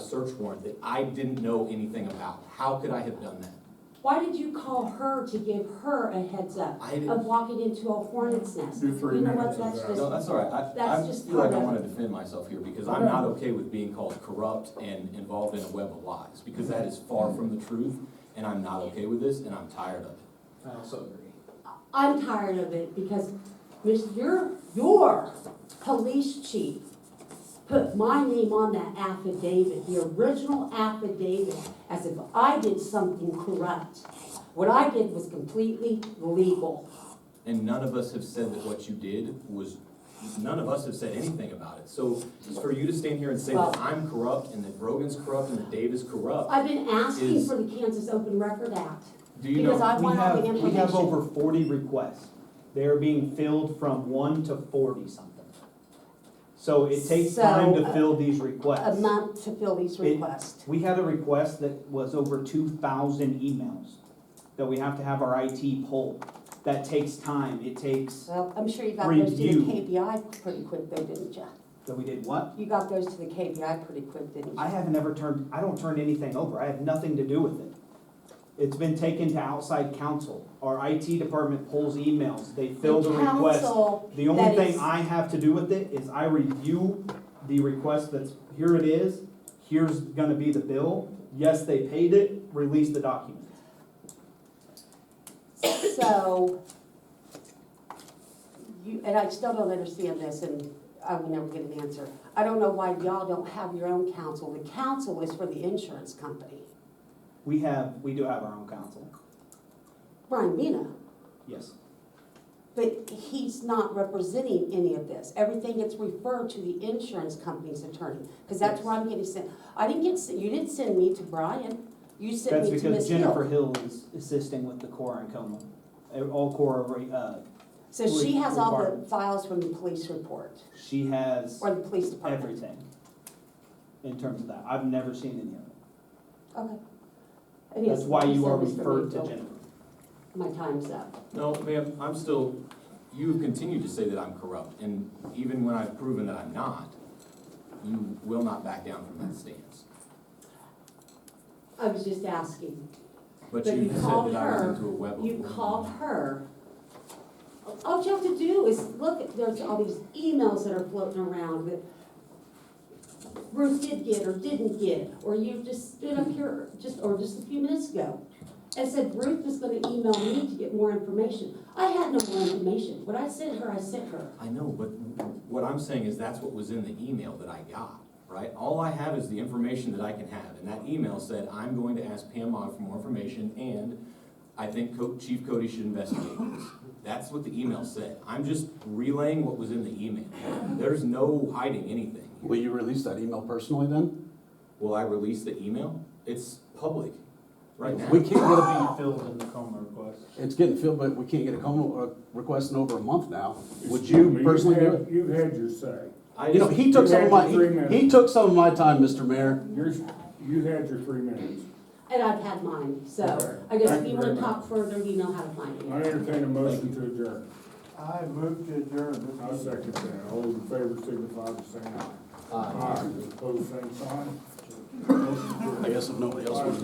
search warrant that I didn't know anything about. How could I have done that? Why did you call her to give her a heads up I didn't, of walking into a hornet's nest? Do three You know what, minutes. that's of just- that. no, that's all right. I, I That's just feel like I part of- want to defend myself here because I'm not okay with being called corrupt and involved in a web of lies because that is far from the truth and I'm not okay with this and I'm tired of it. I also agree. I'm tired of it because Miss, your, your police chief put my name on that affidavit, the original affidavit, as if I did something corrupt. What I did was completely legal. And none of us have said that what you did was, none of us have said anything about it. So for you to stand here and say that Well- I'm corrupt and that Rogan's corrupt and that Dave is corrupt, I've been asking Is- for the Kansas Open Record Act. do you Because know? I We want all have, the we have information. over forty requests. They're being filled from one to forty something. So it takes So, time to uh, fill these A requests. month to fill these It- requests. We had a request that was over two thousand emails that we have to have our IT pull. That takes time. It takes, Well, I'm sure you got those to the Review. KPI pretty quick though, didn't you? that we did what? You got those to the KPI pretty quick, didn't you? I haven't ever turned, I don't turn anything over. I have nothing to do with it. It's been taken to outside counsel. Our IT department pulls emails. They fill the request. council The only that thing is- I have to do with it is I review the request that's, here it is, here's gonna be the bill, yes, they paid it, release the document. So, you, and I still don't understand this, and I will never get an answer. I don't know why y'all don't have your own counsel. The counsel is for the insurance company. We have, we do have our own counsel, Brian Mina, yes. but he's not representing any of this. Everything gets referred to the insurance company's attorney, because that's where I'm getting sent. I didn't get, sent- you didn't send me to Brian. You sent That's me to Ms. because Hill. Jennifer Hill is assisting with the Cora and Coma, Uh, all Cora, re- uh, So she has all the Requirement. files from the police report she has or the police department. everything in terms of that, I've never seen any of it. Okay. That's why you are referred to Jennifer. My time's up. No, ma'am, I'm still, you have continued to say that I'm corrupt, and even when I've proven that I'm not, you will not back down from that stance. I was just asking. But But you you said called that I her- was into a web of. You called her. All you have to do is look, there's all these emails that are floating around that Ruth did get or didn't get, or you just stood up here just, or just a few minutes ago and said Ruth was gonna email me to get more information. I had no more information. What I sent her, I sent her. I know, but what I'm saying is that's what was in the email that I got, right? All I have is the information that I can have, and that email said, I'm going to ask Pam Ogg for more information, and I think Co- Chief Cody should investigate this. That's what the email said. I'm just relaying what was in the email. There's no hiding anything. Will you release that email personally then? Will I release the email? It's public right now. We can't get a, It'll be filled in the coma request. it's getting filled, but we can't get a coma uh, request in over a month now. Would you personally do it? You've had your say. I You know, just- he took some of my, Three he- he minutes. took some of my time, Mr. Mayor. Yours, you had your three minutes. And I've had mine, Okay. so I guess if Thank you you wanna very talk further, you know how to find I me. entertain a motion to adjourn. I moved to adjourn. I second that. All those in favor signify by saying aye. Aye. Opposed, same sign. Motion carries. I guess if nobody else wants to.